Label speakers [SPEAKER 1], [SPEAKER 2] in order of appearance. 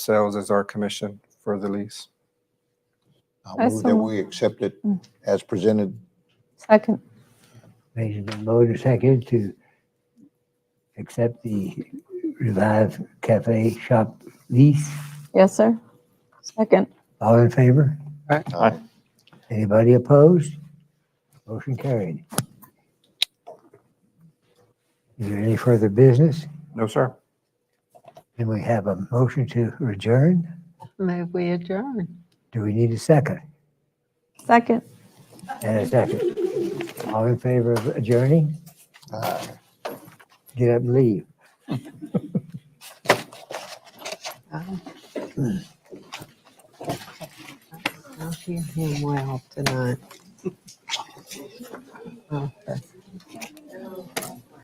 [SPEAKER 1] sales as our commission for the lease.
[SPEAKER 2] I
[SPEAKER 3] I
[SPEAKER 2] uh, move that
[SPEAKER 3] saw.
[SPEAKER 2] we accept it
[SPEAKER 3] Mm.
[SPEAKER 2] as presented.
[SPEAKER 3] Second,
[SPEAKER 4] Motion been made and seconded to accept the Revive Cafe shop lease.
[SPEAKER 3] yes, sir. Second,
[SPEAKER 4] All in favor?
[SPEAKER 2] Aye.
[SPEAKER 4] Anybody opposed? Motion carried. Is there any further business?
[SPEAKER 1] No, sir.
[SPEAKER 4] Then we have a motion to adjourn.
[SPEAKER 5] May we adjourn?
[SPEAKER 4] Do we need a second?
[SPEAKER 3] second,
[SPEAKER 4] And a second. All in favor of adjourning?
[SPEAKER 2] Aye.
[SPEAKER 4] Get up and leave.
[SPEAKER 5] I'll hear him well tonight. Okay.